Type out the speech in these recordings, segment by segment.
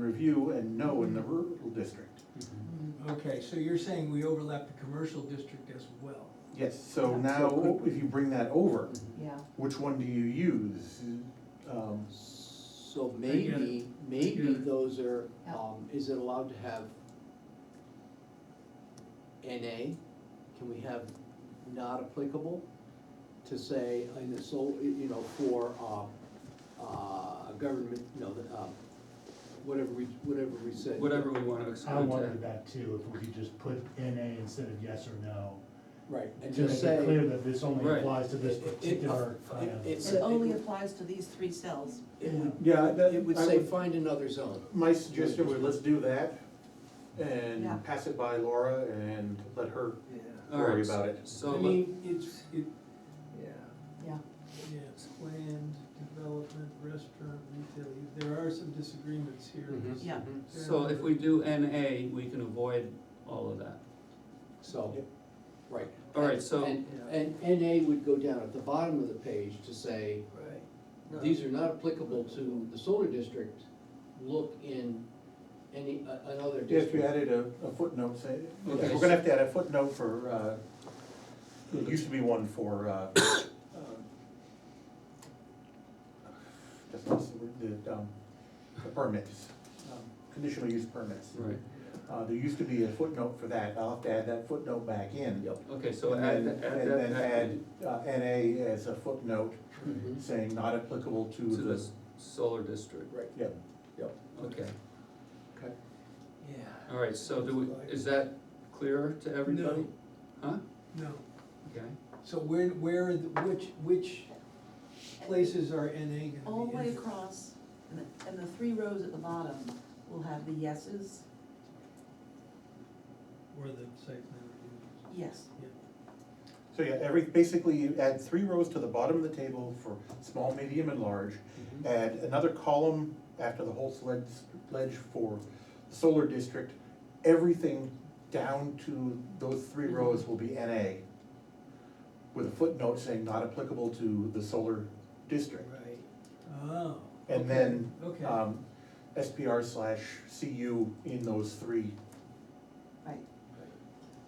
review and no in the rural district. Okay, so you're saying we overlap the commercial district as well? Yes, so Mm-hmm. Yeah. now, if you bring that over, Yeah, which one do you use? Um, So I get it. maybe, I get maybe it. those are, Yeah. um, is it allowed to have NA? Can we have not applicable to say, in the sole, you know, for, um, uh, government, you know, the, um, whatever we, whatever we said. whatever we want to I exclude wondered to. that too, if we could just put NA instead of yes or no. Right, and To make just it clear say. that this only Right. applies to this It- it- particular it- kind of. it's- it only applies to these three cells. It would, Yeah, that, it would I say, would- find another zone. my suggestion was let's do that Yeah. and pass it by Laura and let her Yeah. All right, worry about it. I So, let- mean, it's, it, Yeah, yeah, it's planned development, restaurant, retail, use. there are some disagreements here. Mhm. yeah, Mhm. Mm-hmm. so if we do NA, we can avoid all of that. So, Yep. right. All right, so- And, and NA would go down at the bottom of the page to say, Right. these are not applicable to the solar district, look in any, a- another If we district. added a, a footnote, say, we're Okay. gonna have to add a footnote for, uh, there used to be one for, uh, um, that's not the word, the, um, the permits, um, conditional use permits. Right, Uh, there used to be a footnote for that, I'll have to add that footnote back in. okay, so And add, then- add that. And then back add, in Mm-hmm. uh, NA as a footnote, Mhm. saying not applicable to To the the, s- solar district, Right, yeah, okay, okay. Yeah. all right, so do we, is that clear to everybody? Huh? No, Okay, so where, where, are the- which, which places are NA gonna be? all the way in? across, and the, and the three rows at the bottom will have the yeses, Where the site plan review yes, is. Yeah. so yeah, every, basically you add three rows to the bottom of the table for small, medium, and large. Mm-hmm. Add another column after the whole sledge, ledge for the solar district, everything down to those three Mm-hmm. rows will be NA. With a footnote saying not applicable to the solar district. Right. Oh. okay, And then, Okay. um, SPR slash CU in those three. right.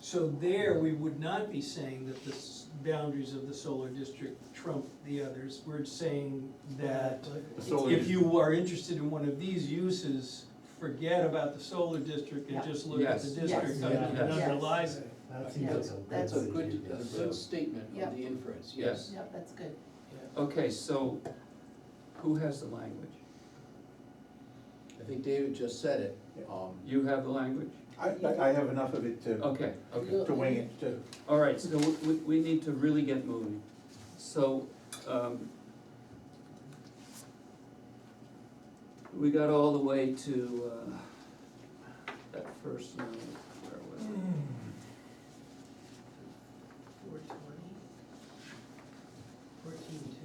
So there, we would not be saying that the s- boundaries of the solar district trump the others. We're saying that The solar if you are interested in one of these uses, forget about the solar district and Yeah. just look at the Yes. district Yes. that Yeah. underlies it. That seems like a good. That's That's a good, uh, idea. a good statement Yeah. of the inference, Yes. yes. Yep, that's good. okay, so who has the language? I think David just said it. Yeah. Um, You have the language? I, I I have enough of it to, Okay, okay. to wing it to. All right, so we, we, we need to really get moving. So, um, we got all the way to, uh, that first note, where was it? Four twenty. Fourteen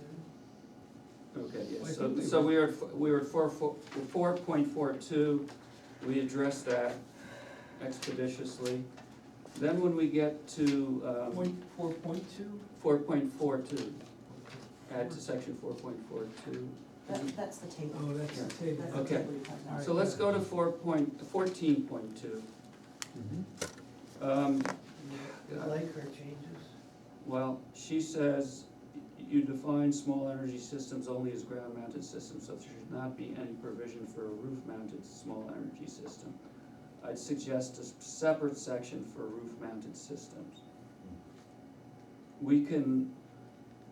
two. Okay, Well, yeah, I so, think we so were- we are, at- we were at four, four, four point four two, we addressed that expeditiously. Then when we get to, um, Point, four point two? four point four two, add to section four point four two. That, that's the Oh, table. that's the table. That's the Okay. table you have now. So let's go to four point, fourteen point two. Um, Like her changes? well, she says, you define small energy systems only as ground mounted systems, so there should not be any provision for a roof mounted small energy system. I'd suggest a s- separate section for roof mounted systems. We can,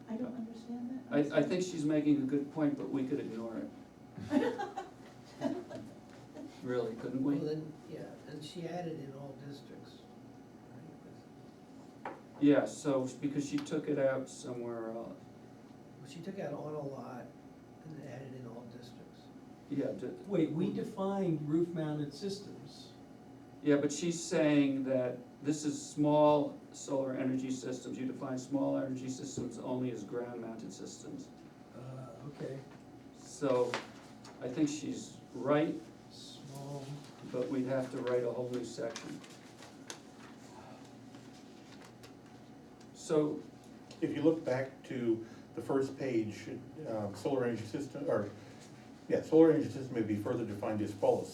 I don't understand that. I, I think she's making a good point, but we could ignore it. Really, couldn't we? then, yeah, and she added in all districts. Yeah, so, because she took it out somewhere else. She took out on a lot and added in all districts. Yeah, d- Wait, we defined roof mounted systems. Yeah, but she's saying that this is small solar energy systems, you define small energy systems only as ground mounted systems. Uh, okay. So I think she's right, Small. but we'd have to write a whole new section. So, If you look back to the first page, um, solar energy system, or, yeah, solar energy system may be further defined as follows.